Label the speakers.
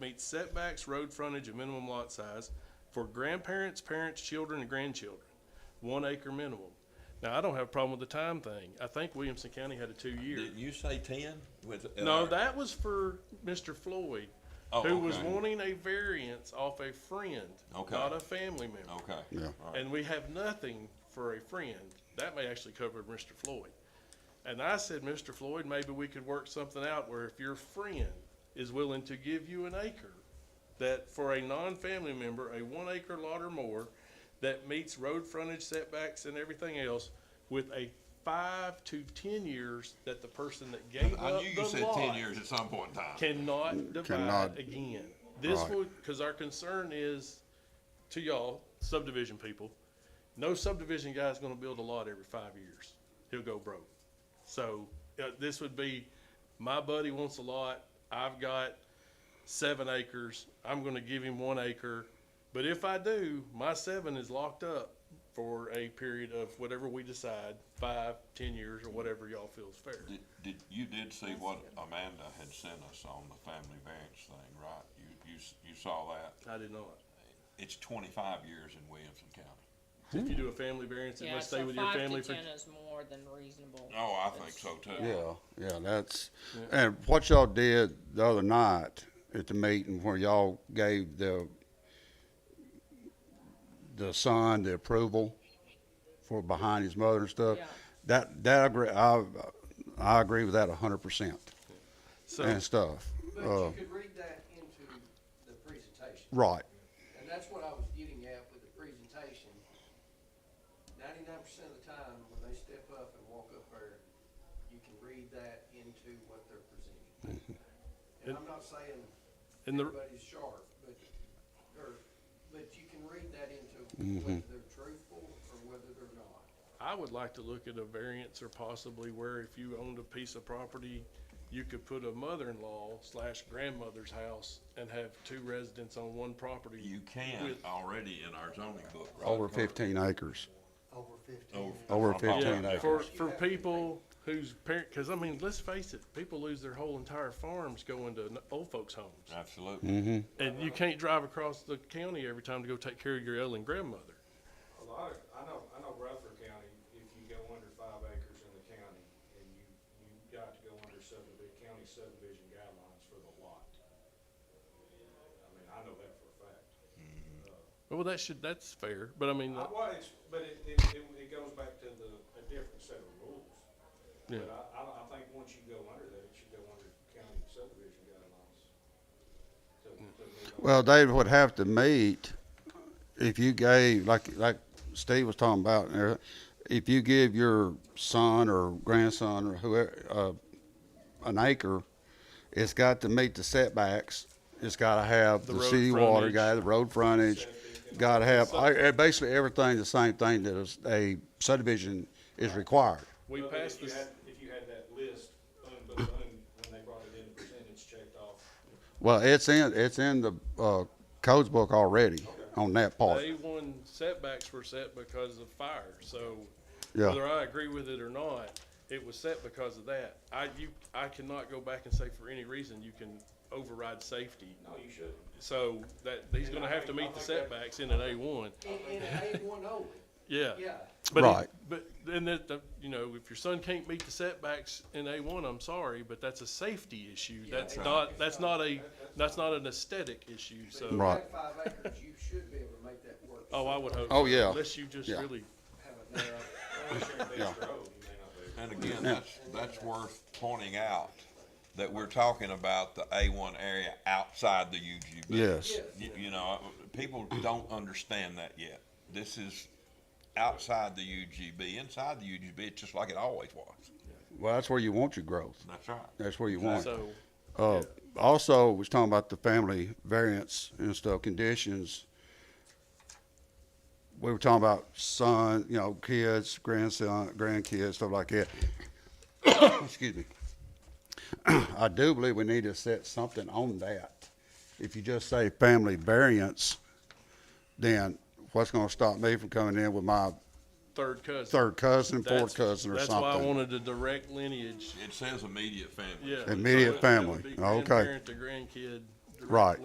Speaker 1: meets setbacks, road frontage, and minimum lot size for grandparents, parents, children, and grandchildren, one acre minimum. Now, I don't have a problem with the time thing. I think Williamson County had a two-year.
Speaker 2: Didn't you say ten with? uh,
Speaker 1: No, that was for Mr. Floyd,
Speaker 2: Oh,
Speaker 1: who was
Speaker 2: okay.
Speaker 1: wanting a variance off a friend,
Speaker 2: Okay.
Speaker 1: not a family member.
Speaker 2: Okay.
Speaker 3: Yeah.
Speaker 2: All right.
Speaker 1: And we have nothing for a friend. That may actually cover Mr. Floyd. And I said, Mr. Floyd, maybe we could work something out where if your friend is willing to give you an acre, that for a non-family member, a one acre lot or more, that meets road frontage setbacks and everything else with a five to ten years that the person that gave
Speaker 2: I
Speaker 1: up
Speaker 2: knew you
Speaker 1: the
Speaker 2: said ten
Speaker 1: lot
Speaker 2: years at some point in time.
Speaker 1: cannot divide
Speaker 3: Cannot.
Speaker 1: again. This
Speaker 3: Right.
Speaker 1: would, because our concern is, to y'all subdivision people, no subdivision guy's gonna build a lot every five years. He'll go broke. So, uh, this would be, my buddy wants a lot, I've got seven acres, I'm gonna give him one acre. But if I do, my seven is locked up for a period of whatever we decide, five, ten years, or whatever y'all feel is fair.
Speaker 2: Did, did, you did see what Amanda had sent us on the family variance thing, right? You, you, s- you saw that?
Speaker 1: I did not.
Speaker 2: It's twenty-five years in Williamson County.
Speaker 1: If you do a family variance, it
Speaker 4: Yeah,
Speaker 1: must stay
Speaker 4: so
Speaker 1: with your
Speaker 4: five to
Speaker 1: family for.
Speaker 4: ten is more than reasonable.
Speaker 2: Oh, I
Speaker 4: That's-
Speaker 2: think so too.
Speaker 3: Yeah, yeah, that's, and what y'all did the other night at the meeting where y'all gave the, the son the approval for behind his mother and stuff,
Speaker 4: Yeah.
Speaker 3: that, that, I agree, I, I agree with that a hundred percent
Speaker 1: So,
Speaker 3: and stuff.
Speaker 5: But
Speaker 3: Uh,
Speaker 5: you could read that into the presentation,
Speaker 3: right,
Speaker 5: and that's what I was getting at with the presentation. Ninety-nine percent of the time, when they step up and walk up there, you can read that into what they're presenting. And I'm not saying
Speaker 1: and the,
Speaker 5: everybody's sharp, but, or, but you can read that into
Speaker 1: Mm-hmm.
Speaker 5: whether they're truthful or whether they're not.
Speaker 1: I would like to look at a variance or possibly where if you owned a piece of property, you could put a mother-in-law slash grandmother's house and have two residents on one property.
Speaker 2: You can
Speaker 1: With-
Speaker 2: already in our zoning book, right?
Speaker 3: over
Speaker 2: Carter?
Speaker 3: fifteen acres,
Speaker 5: Over fifty.
Speaker 2: Over.
Speaker 3: over
Speaker 2: I'm
Speaker 3: fifteen
Speaker 2: talking
Speaker 1: Yeah, for,
Speaker 3: acres.
Speaker 1: for people whose parent, cause I mean, let's face it, people lose their whole entire farms going to n- old folks' homes.
Speaker 2: Absolutely.
Speaker 3: Mm-hmm.
Speaker 1: And you can't drive across the county every time to go take care of your elderly grandmother.
Speaker 6: A lot of, I know, I know Rutherford County, if you go under five acres in the county, and you, you got to go under subdivision, county subdivision guidelines for the lot. I mean, I know that for a fact.
Speaker 1: Well, that should, that's fair, but I mean,
Speaker 6: I,
Speaker 1: that-
Speaker 6: well, it's, but it, it, it it goes back to the, a different set of rules.
Speaker 1: yeah.
Speaker 6: But I, I, I think once you go under that, it should go under county subdivision guidelines. To, to move on.
Speaker 3: Well, they would have to meet, if you gave, like, like Steve was talking about, and everything, if you give your son or grandson or whoever, uh, an acre, it's got to meet the setbacks. It's gotta have
Speaker 1: The
Speaker 3: the
Speaker 1: road
Speaker 3: city water
Speaker 1: frontage.
Speaker 3: guy, the road frontage, gotta have, I- I- basically everything, the same thing that is- a subdivision is required.
Speaker 1: We
Speaker 6: Well, but
Speaker 1: passed
Speaker 6: If you
Speaker 1: this.
Speaker 6: had, if you had that list, un, but un, when they brought it in, percentage checked off,
Speaker 3: Well, it's in, it's in the, uh, codes book already on that part,
Speaker 1: Day one setbacks were set because of fire, so
Speaker 3: Yeah.
Speaker 1: whether I agree with it or not, it was set because of that. I, you, I cannot go back and say for any reason you can override safety.
Speaker 6: no, you shouldn't.
Speaker 1: So that, he's gonna have to meet the setbacks in an A one,
Speaker 5: In, in A one only,
Speaker 1: yeah.
Speaker 5: yeah.
Speaker 1: But it-
Speaker 3: Right.
Speaker 1: But then that, the- you know, if your son can't meet the setbacks in A one, I'm sorry, but that's a safety issue. That's
Speaker 5: Right.
Speaker 1: not, that's not a, that's not an aesthetic issue, so.
Speaker 5: But if you
Speaker 3: Right.
Speaker 5: have five acres, you should be able to make that work.
Speaker 1: Oh, I would hope.
Speaker 3: Oh,
Speaker 1: so,
Speaker 3: yeah.
Speaker 1: Unless you just
Speaker 3: Yeah.
Speaker 1: really,
Speaker 5: Have it narrow.
Speaker 6: Unless you're in Bass Grove, you may not be.
Speaker 2: And again, that's, that's worth pointing out, that we're talking about the A one area outside the UGB.
Speaker 3: yes.
Speaker 2: You, you know, people don't understand that yet. This is outside the UGB. Inside the UGB, it's just like it always was.
Speaker 3: Well, that's where you want your growth.
Speaker 2: That's right.
Speaker 3: That's where you want. it.
Speaker 1: so,
Speaker 3: Uh, also, we was talking about the family variance and stuff, conditions. We were talking about son, you know, kids, grandson, grandkids, stuff like that. Excuse me. I do believe we need to set something on that. If you just say family variance, then what's gonna stop me from coming in with my
Speaker 1: third cousin.
Speaker 3: third cousin,
Speaker 1: That's-
Speaker 3: fourth cousin or
Speaker 1: that's
Speaker 3: something?
Speaker 1: why I wanted a direct lineage.
Speaker 2: It says immediate family.
Speaker 1: Yeah.
Speaker 3: Immediate
Speaker 1: So it- it would
Speaker 3: family.
Speaker 1: be
Speaker 3: Okay.
Speaker 1: Grandparent to grandkid. direct
Speaker 3: Right.